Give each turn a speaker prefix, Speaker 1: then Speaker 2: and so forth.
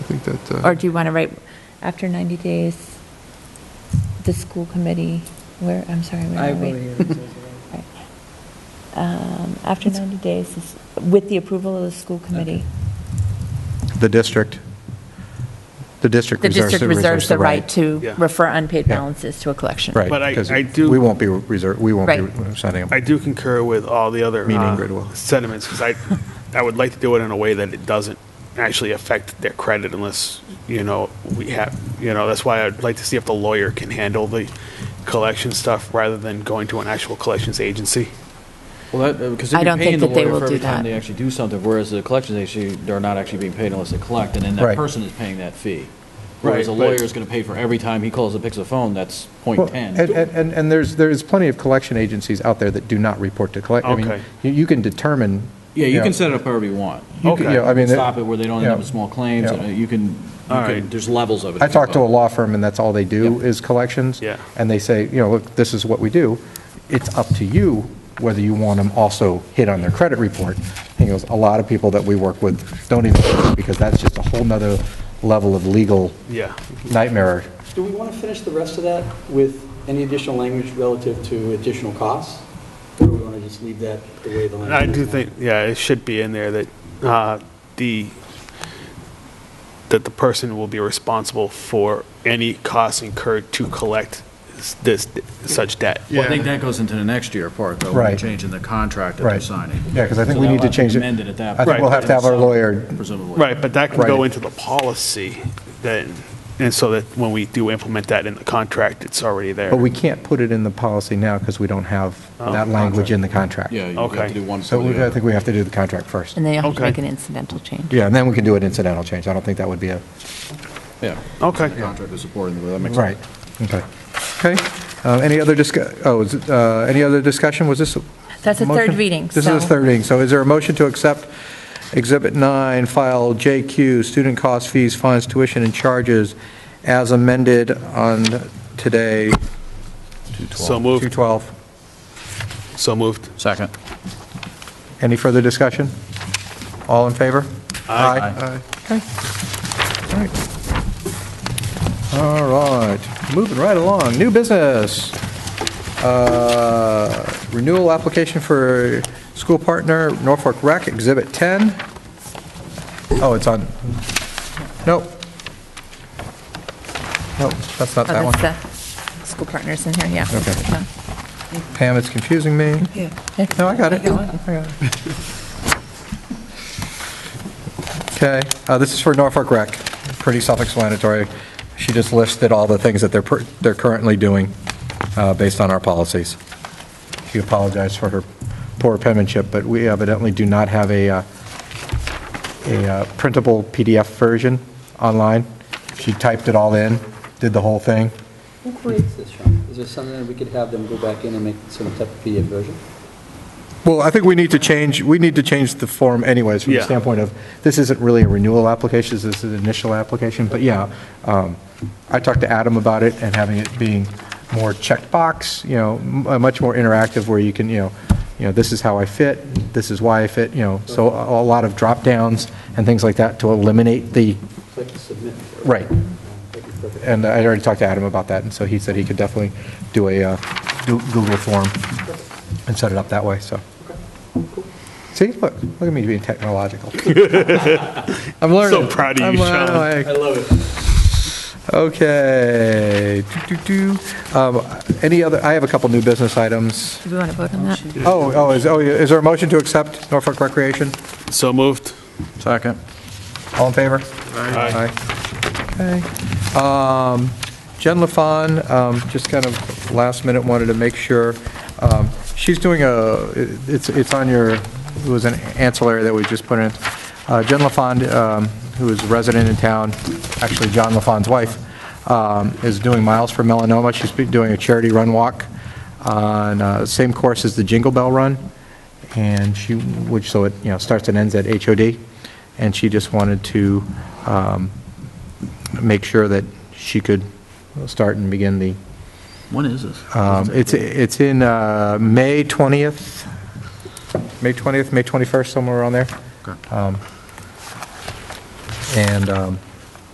Speaker 1: think that, uh,
Speaker 2: Or do you want to write, after 90 days, the school committee, where, I'm sorry, where
Speaker 3: I
Speaker 2: are we?
Speaker 3: will hear it says
Speaker 2: Right. Um, After 90 days, is- with the approval of the school committee.
Speaker 4: The district, the district
Speaker 2: The
Speaker 4: reserves
Speaker 2: district reserves the right
Speaker 5: Yeah.
Speaker 2: to refer unpaid
Speaker 4: Yeah.
Speaker 2: balances to a collection.
Speaker 4: Right.
Speaker 5: But I-
Speaker 4: 'cause
Speaker 5: I do-
Speaker 4: We won't be reserve, we won't be
Speaker 2: Right.
Speaker 4: signing
Speaker 5: I
Speaker 4: them.
Speaker 5: do concur with all the other
Speaker 4: Meaning
Speaker 5: uh,
Speaker 4: Gridwell.
Speaker 5: sentiments, because I, I would like to do it in a way that it doesn't actually affect their credit unless, you know, we have, you know, that's why I'd like to see if the lawyer can handle the collection stuff rather than going to an actual collections agency.
Speaker 6: Well, that, because
Speaker 2: I
Speaker 6: they'd
Speaker 2: don't
Speaker 6: be paying
Speaker 2: think
Speaker 6: the
Speaker 2: that they
Speaker 6: lawyer
Speaker 2: will
Speaker 6: for every
Speaker 2: do
Speaker 6: time
Speaker 2: that.
Speaker 6: they actually do something, whereas the collections agency, they're not actually being paid unless they collect, and then that
Speaker 4: Right.
Speaker 6: person is paying that fee. Whereas a
Speaker 5: Right,
Speaker 6: lawyer
Speaker 5: but-
Speaker 6: is going to pay for every time he calls and picks a phone, that's
Speaker 4: Well,
Speaker 6: point
Speaker 4: And,
Speaker 6: ten.
Speaker 4: and, and- and there's, there's plenty of collection agencies out there that do not report to collect. I mean,
Speaker 5: Okay.
Speaker 4: You, you can determine.
Speaker 6: Yeah, you
Speaker 4: know,
Speaker 6: can set it up however you want.
Speaker 4: you can-
Speaker 5: Okay.
Speaker 4: you know, I mean.
Speaker 6: Stop it where they don't end up
Speaker 4: yeah,
Speaker 6: with small claims,
Speaker 4: yeah.
Speaker 6: and, uh, you can, you
Speaker 5: All
Speaker 6: can-
Speaker 5: right.
Speaker 6: there's levels of it.
Speaker 4: I talked to a law firm, and that's all they do
Speaker 6: Yep.
Speaker 4: is collections.
Speaker 5: Yeah.
Speaker 4: And they say, you know, look, this is what we do. It's up to you whether you want them also hit on their credit report. He goes, a lot of people that we work with don't even, because that's just a whole nother level of legal
Speaker 5: Yeah.
Speaker 4: nightmare.
Speaker 7: Do we want to finish the rest of that with any additional language relative to additional costs? Or do we want to just leave that the way the
Speaker 5: And I
Speaker 7: language
Speaker 5: do
Speaker 7: is now?
Speaker 5: think, yeah, it should be in there that uh, the, that the person will be responsible for any costs incurred to collect s- this, such debt.
Speaker 6: Well, I think that goes into the next year part, though, when
Speaker 4: Right.
Speaker 6: you're changing the contract that
Speaker 4: Right.
Speaker 6: they're signing.
Speaker 4: Yeah, 'cause I think
Speaker 6: So
Speaker 4: we
Speaker 6: that
Speaker 4: need to
Speaker 6: will have
Speaker 4: change it.
Speaker 6: Amend it at that.
Speaker 4: I think
Speaker 5: we'll
Speaker 6: point.
Speaker 4: have to have our lawyer-
Speaker 6: Presumably.
Speaker 5: Right, but that can
Speaker 4: Right.
Speaker 5: go into the policy then, and so that when we do implement that in the contract, it's already there.
Speaker 4: But we can't put it in the policy now because we don't have
Speaker 5: Oh,
Speaker 4: that language in the contract.
Speaker 6: Yeah, you have
Speaker 5: Okay.
Speaker 6: to do one.
Speaker 4: So
Speaker 6: for the
Speaker 4: we- I
Speaker 6: other.
Speaker 4: think we have to do the contract first.
Speaker 2: And then you have to
Speaker 5: Okay.
Speaker 2: make an incidental change.
Speaker 4: Yeah, and then we can do an incidental change. I don't think that would be a,
Speaker 6: Yeah.
Speaker 5: Okay.
Speaker 6: The Contract is supporting, it, but that makes sense.
Speaker 4: right, okay. Okay, Uh, any other discuss, oh, is it, uh, any other discussion? Was this?
Speaker 2: That's a
Speaker 4: motion?
Speaker 2: third reading,
Speaker 4: This is a
Speaker 2: so-
Speaker 4: third reading. So is there a motion to accept Exhibit 9, File JQ, Student Cost Fees, Fines, Tuition, and Charges as amended on today?
Speaker 5: So moved.
Speaker 4: 212.
Speaker 5: So moved.
Speaker 6: Second.
Speaker 4: Any further discussion? All in favor?
Speaker 6: Aye.
Speaker 4: Okay. All right. All right, moving right along, new business. Uh, Renewal application for school partner Norfolk Rec, Exhibit 10. Oh, it's on, nope. Nope, that's not
Speaker 2: Oh,
Speaker 4: that one.
Speaker 2: that's the school partners in here, yeah.
Speaker 4: Okay.
Speaker 2: No.
Speaker 4: Pam, it's confusing me. No, I got it. Okay, uh, this is for Norfolk Rec. Pretty self-explanatory. She just listed all the things that they're, per- they're currently doing uh, based on our policies. She apologized for her poor penmanship, but we evidently do not have a, uh, a uh, printable PDF version online. She typed it all in, did the whole thing.
Speaker 7: Who creates this, Sean? Is there something that we could have them go back in and make some type of PDF version?
Speaker 4: Well, I think we need to change, we need to change the form anyways, from the
Speaker 5: Yeah.
Speaker 4: standpoint of, this isn't really a renewal application, this is an initial application, but yeah, um, I talked to Adam about it, and having it being more checkbox, you know, m- uh, much more interactive, where you can, you know, you know, this is how I fit, this is why I fit, you know, so a a lot of drop downs and things like that to eliminate the,
Speaker 7: It's like to submit.
Speaker 4: right,
Speaker 7: That'd be perfect.
Speaker 4: and I already talked to Adam about that, and so he said he could definitely do a uh, Goo- Google form and set it up that way, so. See, look, look at me being technological. I'm learning.
Speaker 5: proud of
Speaker 4: I'm,
Speaker 5: you,
Speaker 4: uh,
Speaker 5: Sean.
Speaker 4: like,
Speaker 7: I love it.
Speaker 4: Okay. Do, do, do. Um, Any other, I have a couple new business items.
Speaker 2: Do we want to vote on that?
Speaker 4: Oh, oh, is, oh, is there a motion to accept Norfolk Recreation?
Speaker 5: So moved.
Speaker 6: Second.
Speaker 4: All in favor?
Speaker 5: Aye.
Speaker 4: Okay. Um, Jen LaFawn, um, just kind of last minute wanted to make sure, um, she's doing a, it's, it's on your, it was an ancillary that we just put in. Uh, Jen LaFawn, um, who is a resident in town, actually John LaFawn's wife, um, is doing Miles for Melanoma. She's been doing a charity run walk on, uh, same course as the Jingle Bell Run and she, which, so it, you know, starts and ends at HOD, and she just wanted to um, make sure that she could start and begin the,
Speaker 6: When is this?
Speaker 4: um, it's, it's in uh, May 20th, May 20th, May 21st, somewhere around there.
Speaker 6: Okay.
Speaker 4: Um, And um,